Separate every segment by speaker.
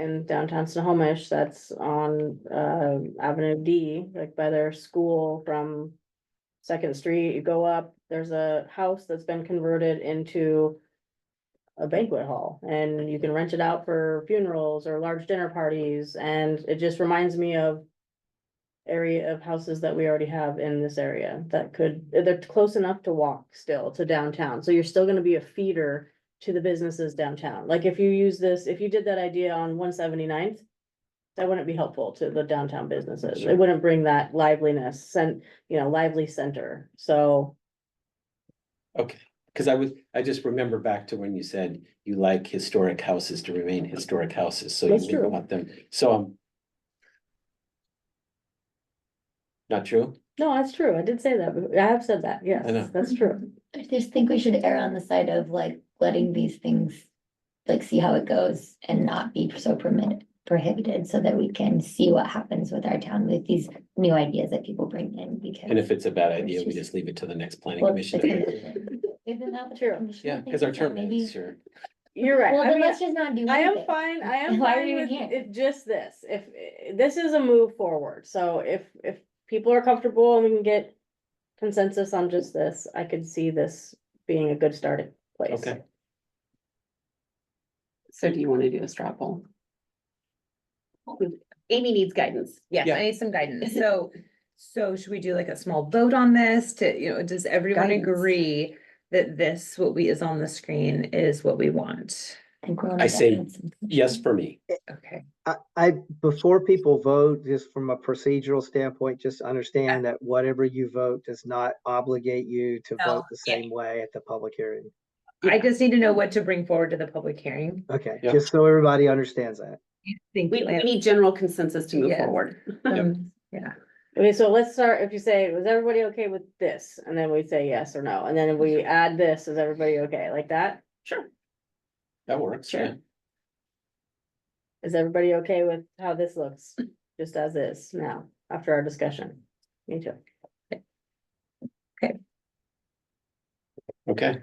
Speaker 1: in downtown Snohomish, that's on, uh, Avenue D, like by their school from. Second Street, you go up, there's a house that's been converted into. A banquet hall and you can rent it out for funerals or large dinner parties and it just reminds me of. Area of houses that we already have in this area that could, they're close enough to walk still to downtown, so you're still gonna be a feeder to the businesses downtown. Like if you use this, if you did that idea on 179th, That wouldn't be helpful to the downtown businesses. It
Speaker 2: Sure.
Speaker 1: wouldn't bring that liveliness and, you know, lively center. So
Speaker 2: Okay, because I was, I just remember back to when you said you like historic houses to remain historic houses, so you
Speaker 1: That's true.
Speaker 2: wouldn't want them, so um. Not true?
Speaker 1: no, that's true. I did say that. but I have said that.
Speaker 2: I know.
Speaker 1: Yes, that's true.
Speaker 3: I just think we should err on the side of like letting these things, like see how it goes and not be so permitted, prohibited so that we can see what happens with our town with these new ideas that people bring in because.
Speaker 2: And if it's a bad idea, we just leave it to the next planning
Speaker 3: Well,
Speaker 2: commission.
Speaker 3: Isn't that what the
Speaker 1: True.
Speaker 3: commission
Speaker 2: Yeah,
Speaker 3: thinks?
Speaker 2: because our
Speaker 3: So
Speaker 2: term
Speaker 3: maybe-
Speaker 2: is, sure.
Speaker 1: You're right.
Speaker 3: Well,
Speaker 1: I
Speaker 3: then
Speaker 1: mean,
Speaker 3: let's just not do.
Speaker 1: I am
Speaker 3: anything.
Speaker 1: fine, I am
Speaker 3: Why are
Speaker 1: fine
Speaker 3: you
Speaker 1: with
Speaker 3: here?
Speaker 1: it, just this, if, this is a move forward, so if, if people are comfortable and we can get. Consensus on just this, I could see this being a good starting place.
Speaker 2: Okay.
Speaker 4: So do you wanna do a straw poll?
Speaker 5: Amy needs guidance. Yes,
Speaker 2: Yeah.
Speaker 5: I need some guidance. So, so should we do like a small vote on this to, you know, does everyone
Speaker 4: Guidance.
Speaker 5: agree? That this, what we is on the screen is what we want?
Speaker 3: I think we're on
Speaker 2: I
Speaker 3: a
Speaker 2: say
Speaker 3: different something.
Speaker 2: Yes, for me.
Speaker 5: Okay.
Speaker 6: I, I, before people vote, just from a procedural standpoint, just understand that whatever you vote does not obligate you to
Speaker 5: No,
Speaker 6: vote the
Speaker 5: yeah.
Speaker 6: same way at the public hearing.
Speaker 5: I just need to know what to bring forward to the public hearing.
Speaker 6: Okay,
Speaker 2: Yeah.
Speaker 6: just so everybody understands that.
Speaker 5: Thank
Speaker 4: We,
Speaker 5: you,
Speaker 4: we
Speaker 5: Lance.
Speaker 4: need general consensus to move
Speaker 5: Yes.
Speaker 4: forward.
Speaker 5: Um, Yeah,
Speaker 1: Okay, so let's start, if you say, was everybody okay with this, and then we say yes or no, and then we add this, is everybody okay, like that?
Speaker 4: Sure.
Speaker 2: That works,
Speaker 4: Sure.
Speaker 2: yeah.
Speaker 1: Is everybody okay with how this looks, just as is now, after our discussion? Me too.
Speaker 2: Okay,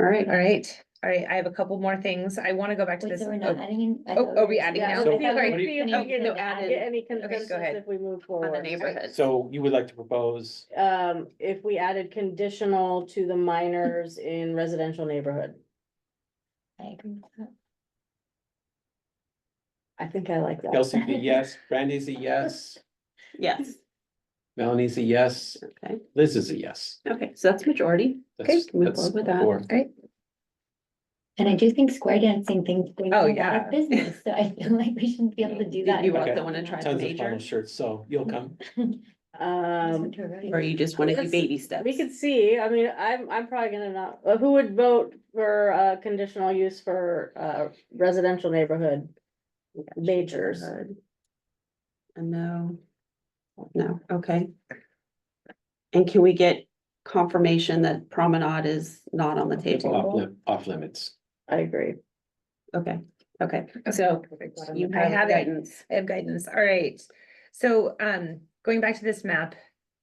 Speaker 4: All right.
Speaker 5: all right, all right. I have a couple more things. I want to go back to
Speaker 3: Wait,
Speaker 5: this.
Speaker 3: so we're not
Speaker 5: oh,
Speaker 3: adding in? I
Speaker 5: oh,
Speaker 3: thought
Speaker 5: are
Speaker 3: were
Speaker 5: we
Speaker 3: just-
Speaker 5: adding
Speaker 1: Yeah,
Speaker 2: So-
Speaker 5: now?
Speaker 1: I think
Speaker 5: Sorry.
Speaker 1: we-
Speaker 2: What do you-
Speaker 1: we
Speaker 3: No,
Speaker 1: need
Speaker 3: you
Speaker 1: to
Speaker 3: said
Speaker 4: no,
Speaker 3: add
Speaker 4: added.
Speaker 1: Get any
Speaker 5: go
Speaker 1: consensus
Speaker 5: ahead.
Speaker 1: if we move
Speaker 4: On
Speaker 1: forward.
Speaker 4: the neighborhood.
Speaker 2: so you would like to propose,
Speaker 1: Um, if we added conditional to the minors in residential neighborhood,
Speaker 3: I agree with that.
Speaker 1: I think I like that.
Speaker 2: Kelsey, a yes, Brandy's a yes,
Speaker 4: Yes,
Speaker 2: Melanie's a yes,
Speaker 4: okay,
Speaker 2: Liz is a yes.
Speaker 4: okay, so that's majority. Okay,
Speaker 2: That's-
Speaker 4: move
Speaker 2: that's
Speaker 4: forward with that.
Speaker 2: four.
Speaker 3: And I do think square dancing things bring a
Speaker 5: Oh,
Speaker 3: lot
Speaker 5: yeah.
Speaker 3: of business, so I feel like we shouldn't be able to do
Speaker 4: You-
Speaker 3: that.
Speaker 4: You
Speaker 2: Okay.
Speaker 4: also wanna try the
Speaker 2: Tons of
Speaker 4: major,
Speaker 2: funnel shirts, so you'll come.
Speaker 1: Um,
Speaker 4: or you just wanna do
Speaker 1: Let's-
Speaker 4: baby steps?
Speaker 1: we could see, I mean, I'm, I'm probably gonna not, uh, who would vote for, uh, conditional use for, uh, residential neighborhood? majors.
Speaker 4: A no. No, okay. And can we get confirmation that promenade is not on the
Speaker 2: Off
Speaker 4: table?
Speaker 2: lim- off limits.
Speaker 1: I agree.
Speaker 4: Okay, okay, so you
Speaker 5: I
Speaker 4: have
Speaker 5: have it.
Speaker 4: guidance.
Speaker 5: I have guidance, all right. So, um, going back to this map,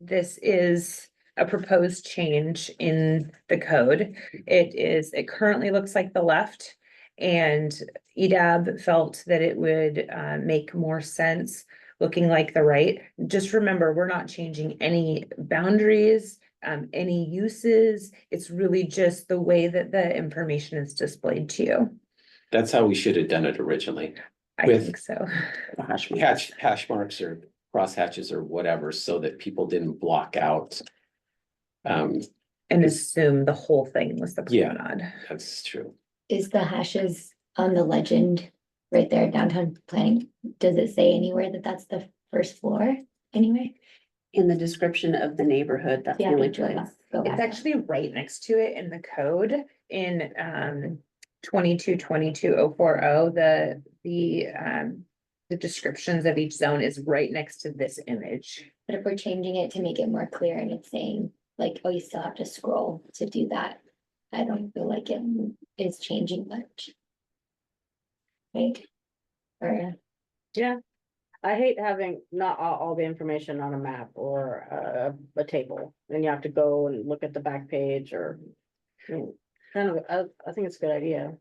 Speaker 5: this is a proposed change in the code. It is, it currently looks like the left. And E EDAB felt that it would, uh, make more sense looking like the right. Just remember, we're not changing any boundaries, um, any uses. It's really just the way that the information is displayed to you.
Speaker 2: That's how we should have done it originally.
Speaker 5: I
Speaker 2: With-
Speaker 5: think so.
Speaker 4: The hash marks.
Speaker 2: Hatch, hash marks or cross hatches or whatever, so that people didn't block out. Um,
Speaker 5: And assume the whole thing was the
Speaker 2: Yeah.
Speaker 5: promenade.
Speaker 2: that's true.
Speaker 3: Is the hashes on the legend right there downtown planning, does it say anywhere that that's the first floor anyway?
Speaker 4: In the description of the neighborhood, that's the
Speaker 3: Yeah,
Speaker 4: only
Speaker 3: go back-
Speaker 4: place.
Speaker 3: go back.
Speaker 5: It's actually right next to it in the code in um twenty-two, twenty-two, oh, four, oh, the, the um. The descriptions of each zone is right next to this image.
Speaker 3: But if we're changing it to make it more clear and it's saying like, oh, you still have to scroll to do that. I don't feel like it is changing much. Right? Or,
Speaker 1: I hate having not all, all the information on a map or a, a table, and you have to go and look at the back page or. I mean, Kind of, I, I think it's a good idea.